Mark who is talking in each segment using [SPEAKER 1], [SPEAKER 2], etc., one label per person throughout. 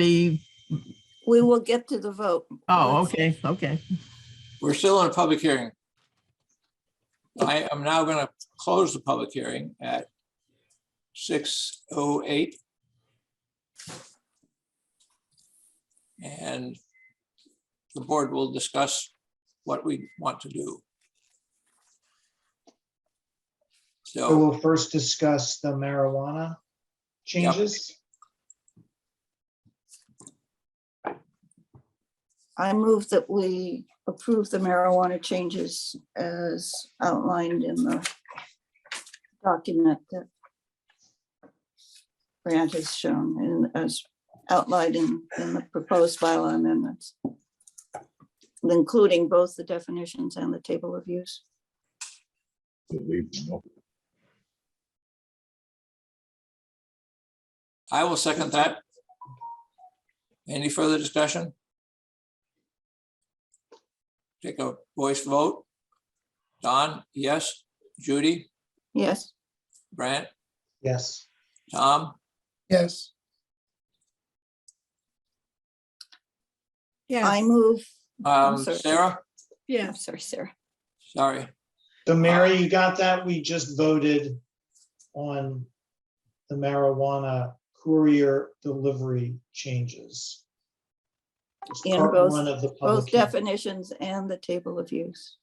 [SPEAKER 1] be,
[SPEAKER 2] We will get to the vote.
[SPEAKER 1] oh,
[SPEAKER 2] Let's-
[SPEAKER 1] okay, okay.
[SPEAKER 3] We're still in a public hearing. I am now going to close the public hearing at six oh eight. And the board will discuss what we want to do.
[SPEAKER 4] So
[SPEAKER 3] So,
[SPEAKER 4] we'll first discuss the marijuana changes.
[SPEAKER 2] I move that we approve the marijuana changes as outlined in the document that Grant has shown and as outlined in, in the proposed bylaw amendments, including both the definitions and the table of use.
[SPEAKER 5] Believe me, no.
[SPEAKER 3] I will second that. Any further discussion? Take a voice vote. Don, yes. Judy,
[SPEAKER 2] Yes,
[SPEAKER 3] Brant,
[SPEAKER 4] Yes,
[SPEAKER 3] Tom? um,
[SPEAKER 6] yes,
[SPEAKER 2] I move,
[SPEAKER 3] Um,
[SPEAKER 2] sorry.
[SPEAKER 3] Sarah,
[SPEAKER 2] yeah, sorry, Sarah.
[SPEAKER 3] sorry,
[SPEAKER 4] so Mary, you got that? We just voted on the marijuana courier delivery changes. It's
[SPEAKER 2] In
[SPEAKER 4] part
[SPEAKER 2] both-
[SPEAKER 4] one of the
[SPEAKER 2] Both
[SPEAKER 4] public hearing.
[SPEAKER 2] definitions and the table of use.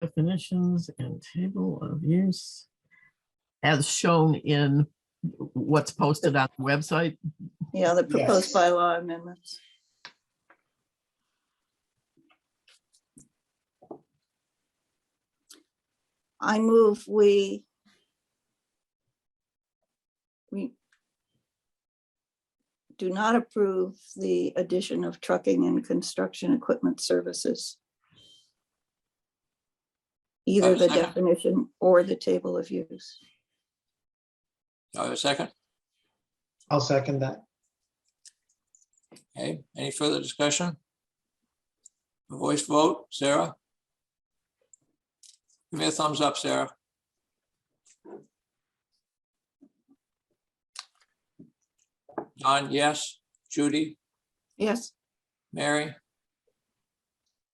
[SPEAKER 1] Definitions and table of use as shown in what's posted on the website.
[SPEAKER 2] Yeah, the proposed
[SPEAKER 4] Yes.
[SPEAKER 2] bylaw amendments. I move we we do not approve the addition of trucking and construction equipment services. Either the
[SPEAKER 3] Second.
[SPEAKER 2] definition or the table of use.
[SPEAKER 3] Do I have a second.
[SPEAKER 4] I'll second that.
[SPEAKER 3] Okay, any further discussion? A Voice vote, Sarah? Give me a thumbs up, Sarah. Don, yes. Judy,
[SPEAKER 2] Yes,
[SPEAKER 3] Mary, Oh,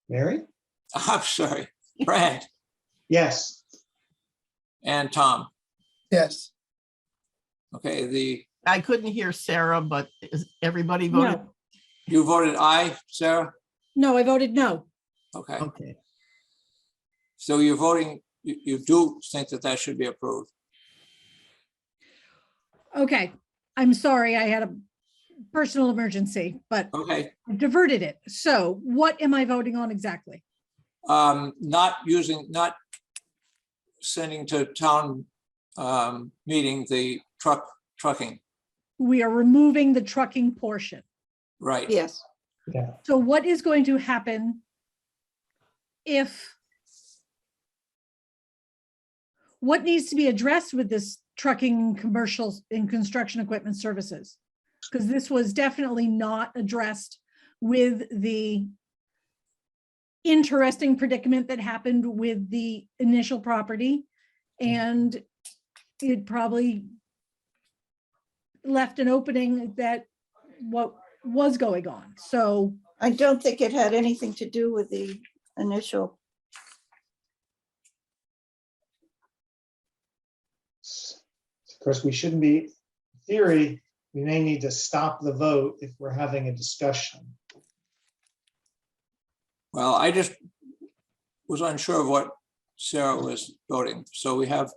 [SPEAKER 4] Mary?
[SPEAKER 3] I'm sorry, Brad
[SPEAKER 4] Yes,
[SPEAKER 3] and Tom.
[SPEAKER 6] yes,
[SPEAKER 3] Okay, the,
[SPEAKER 1] I couldn't hear Sarah, but is everybody voted?
[SPEAKER 7] No.
[SPEAKER 3] you voted aye, Sarah?
[SPEAKER 7] No, I voted no.
[SPEAKER 3] Okay,
[SPEAKER 1] Okay,
[SPEAKER 3] so you're voting, you, you do think that that should be approved?
[SPEAKER 7] Okay, I'm sorry, I had a personal emergency, but
[SPEAKER 3] Okay,
[SPEAKER 7] I diverted it. So what am I voting on exactly?
[SPEAKER 3] um, not using, not sending to town, um, meeting the truck, trucking,
[SPEAKER 7] We are removing the trucking portion.
[SPEAKER 3] right?
[SPEAKER 2] yes.
[SPEAKER 4] yeah,
[SPEAKER 7] So what is going to happen if what needs to be addressed with this trucking commercials and construction equipment services? Because this was definitely not addressed with the interesting predicament that happened with the initial property. And it probably left an opening that what was going on. So
[SPEAKER 2] I don't think it had anything to do with the initial,
[SPEAKER 4] Of course, we shouldn't be, in theory, we may need to stop the vote if we're having a discussion.
[SPEAKER 3] Well, I just was unsure of what Sarah was voting, so we have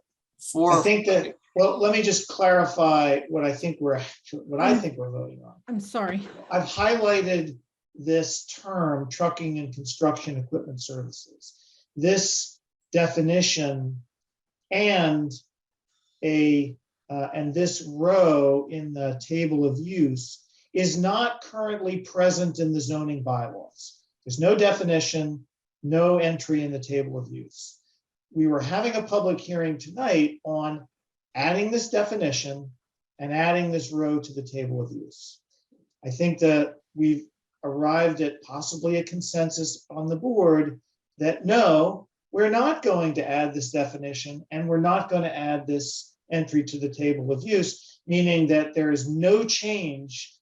[SPEAKER 3] four.
[SPEAKER 4] I think that, well, let me just clarify what I think we're, what I think we're voting on.
[SPEAKER 7] I'm sorry.
[SPEAKER 4] I've highlighted this term, trucking and construction equipment services. This definition and a, uh, and this row in the table of use is not currently present in the zoning bylaws. There's no definition, no entry in the table of use. We were having a public hearing tonight on adding this definition and adding this row to the table of use. I think that we've arrived at possibly a consensus on the board that no, we're not going to add this definition and we're not going to add this entry to the table of use, meaning that there is no change